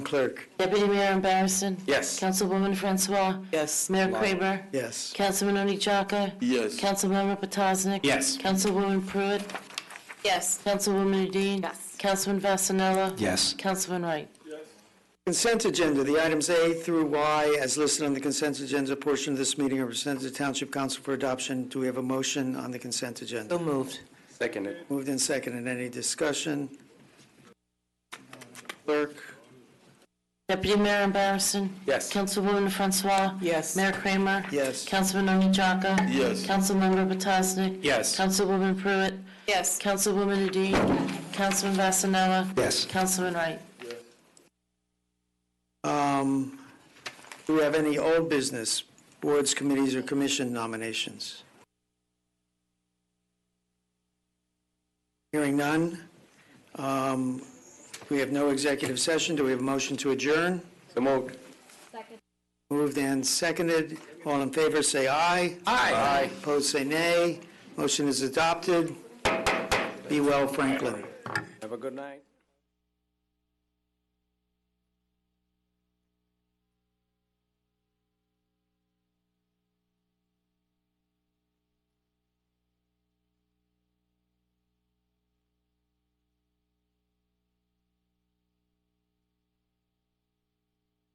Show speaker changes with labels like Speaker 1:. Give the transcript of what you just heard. Speaker 1: Clerk.
Speaker 2: Deputy Mayor Barison.
Speaker 1: Yes.
Speaker 2: Councilwoman Francois.
Speaker 3: Yes.
Speaker 2: Mayor Kramer.
Speaker 1: Yes.
Speaker 2: Councilman Oni Chaka.
Speaker 4: Yes.
Speaker 2: Councilmember Petosnik.
Speaker 1: Yes.
Speaker 2: Councilwoman Pruitt.
Speaker 3: Yes.
Speaker 2: Councilwoman Udine.
Speaker 3: Yes.
Speaker 2: Councilman Vasanella.
Speaker 1: Yes.
Speaker 2: Councilman Wright.
Speaker 1: Consent agenda, the items A through Y as listed on the consent agenda portion of this meeting are presented to Township Council for adoption. Do we have a motion on the consent agenda?
Speaker 3: So moved.
Speaker 4: Seconded.
Speaker 1: Moved and seconded. Any discussion? Clerk.
Speaker 2: Deputy Mayor Barison.
Speaker 4: Yes.
Speaker 2: Councilwoman Francois.
Speaker 3: Yes.
Speaker 2: Mayor Kramer.
Speaker 1: Yes.
Speaker 2: Councilman Oni Chaka.
Speaker 4: Yes.
Speaker 2: Councilmember Petosnik.
Speaker 4: Yes.
Speaker 2: Councilwoman Pruitt.
Speaker 3: Yes.
Speaker 2: Councilwoman Udine. Councilman Vasanella.
Speaker 4: Yes.
Speaker 2: Councilman Wright.
Speaker 1: Um, Do we have any old business, boards, committees, or commission nominations? Hearing none. Um, We have no executive session. Do we have a motion to adjourn?
Speaker 4: So moved.
Speaker 1: Moved and seconded. All in favor, say aye. Aye. Opposed, say nay. Motion is adopted. Be well, Franklin.
Speaker 4: Have a good night.